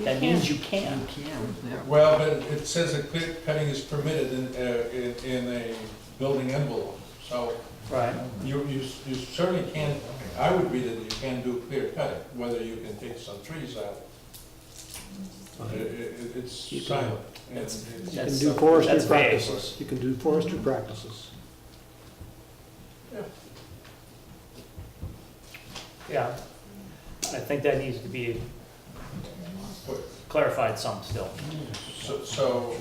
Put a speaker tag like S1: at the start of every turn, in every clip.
S1: That means you can.
S2: Can, yeah.
S3: Well, but it says that clear cutting is permitted in, uh, in, in a building envelope, so
S1: Right.
S3: you, you you certainly can, I would read it, you can do clear cutting, whether you can take some trees out. It, it, it's
S4: You can-
S3: silent. and
S5: That's-
S3: it's-
S4: You can
S1: That's
S4: do
S1: something-
S4: forestry
S1: that's vague.
S4: practices, you can do forestry practices.
S1: Yeah. I think that needs to be clarified some still.
S3: So, so,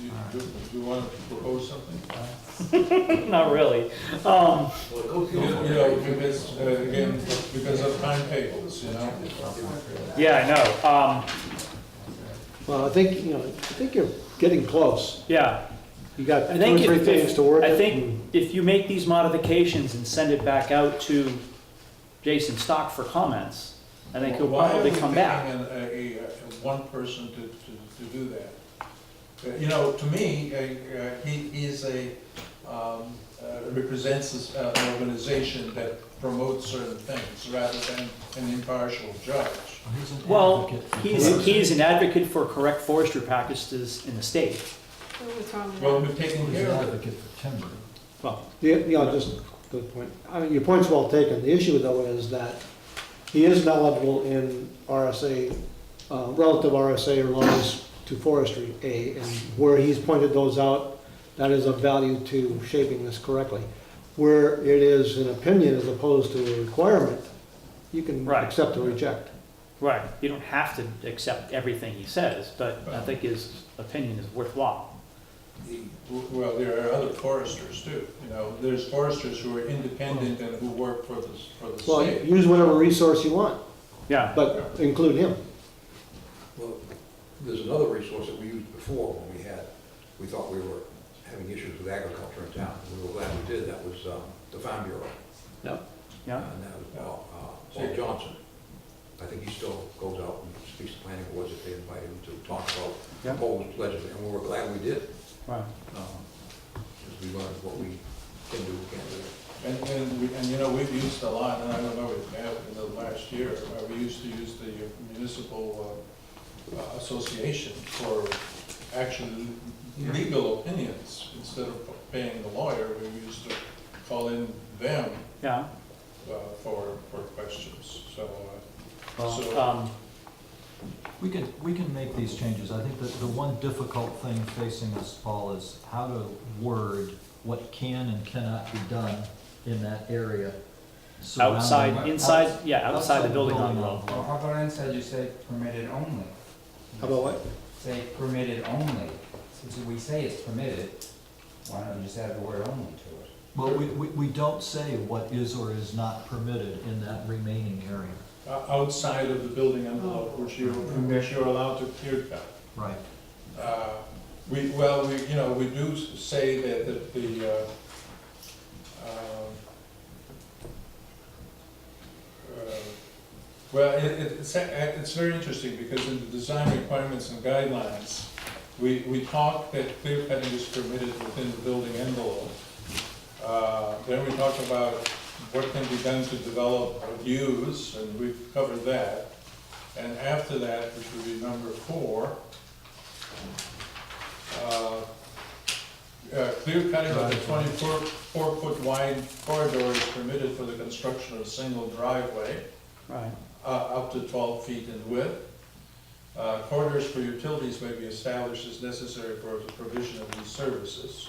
S3: you, do do you want to propose something?
S1: Not really. Um,
S3: You you know, because, uh, again, because of timetables, you know?
S1: yeah, I know. Um,
S4: Well, I think, you know, I think you're getting close.
S1: yeah.
S4: You got
S1: I
S4: two or
S1: think
S4: three
S1: if-
S4: things to work. Hmm.
S1: I
S4: with
S1: think if you make these modifications and send it back out to Jason Stock for comments, I think he'll
S3: Why are
S1: probably
S3: we
S1: come back.
S3: picking an- a, a, a- one person to, to, to do that? Uh, You know, to me, uh, uh, he, he's a, um, uh, represents this, uh, an organization that promotes certain things rather than an impartial judge.
S1: Well, he's, he's an advocate for correct forestry practices in the state.
S5: What's wrong with
S3: Well,
S5: that?
S3: we've taken care of it.
S1: Well,
S4: The, you know, just, good point. I mean, your point's well taken. The issue though is that he is knowledgeable in RSA, uh, relative RSA laws to forestry, A, and where he's pointed those out, that is of value to shaping this correctly. Where it is an opinion as opposed to a requirement, you can
S1: Right.
S4: accept or reject.
S1: right, you don't have to accept everything he says, but I think his opinion is worthwhile.
S3: W- Well, there are other foresters too, you know, there's foresters who are independent and who work for the, s- for the
S4: Well,
S3: state.
S4: use whatever resource you want,
S1: Yeah,
S4: but include him.
S6: Well, there's another resource that we used before when we had, we thought we were having issues with agriculture in town. We were glad we did, that was um, the Farm Bureau.
S1: yeah,
S6: And that was Paul, uh, Paul Johnson. I think he still goes out and speaks to planning boards if they invite him to talk about
S1: Yeah.
S6: proposed legislation, and we were glad we did.
S1: right.
S6: Because we learned what we can do, can't do.
S3: And, and, we- and you know, we've used a lot, and I don't know, if we have in the last year, uh, we used to use the municipal uh, uh, association for actually legal opinions. Instead of paying the lawyer, we used to call in them
S1: Yeah,
S3: uh, for, for questions, so. uh,
S1: well,
S3: So-
S1: um,
S7: We can, we can make these changes. I think that the one difficult thing facing us, Paul, is how to word what can and cannot be done in that area. surrounding-
S1: outside, inside, yeah, outside the building envelope.
S8: Well, how about inside you say permitted only?
S4: How about what?
S8: Say permitted only, since we say it's permitted, why don't you just add the word only to it?
S7: Well, we, we, we don't say what is or is not permitted in that remaining area.
S3: uh, o- Outside of the building envelope, which you're, which you're allowed to clear cut.
S7: Right.
S3: Uh, We, well, we, you know, we do s- say that, that the, uh, um, uh, well, it, it- it's, a- it's very interesting, because in the design requirements and guidelines, we, we talk that clear cutting is permitted within the building envelope. Uh, Then we talk about what can be done to develop or use, and we've covered that. And after that, which would be number four, uh, uh, clear cutting of the twenty-four, four-foot wide corridor is permitted for the construction of a single driveway,
S1: Right,
S3: uh, up to twelve feet in width. Uh, corridors for utilities may be established as necessary for the provision of these services.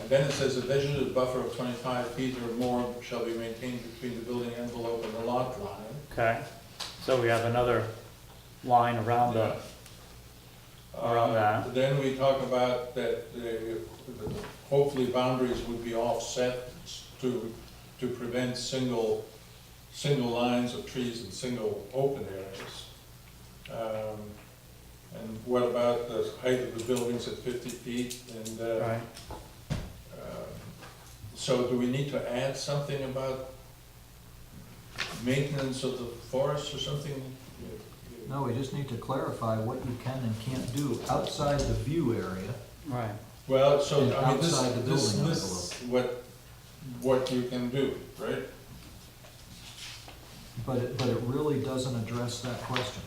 S3: And then it says a vegetative buffer of twenty-five feet or more shall be maintained between the building envelope and the lot line.
S1: okay. So we have another line around the, Around
S3: Uh,
S1: that.
S3: Then we talk about that uh, hopefully boundaries would be offset to, to prevent single, single lines of trees and single open areas. Um, And what about the height of the buildings at fifty feet and, uh,
S1: right,
S3: uh, so do we need to add something about maintenance of the forest or something?
S7: No, we just need to clarify what you can and can't do outside the view area.
S1: right.
S3: Well, so,
S7: And
S3: I mean, this,
S7: outside the
S3: this
S7: building
S3: lists what, what you can do, right?
S7: But it, but it really doesn't address that question.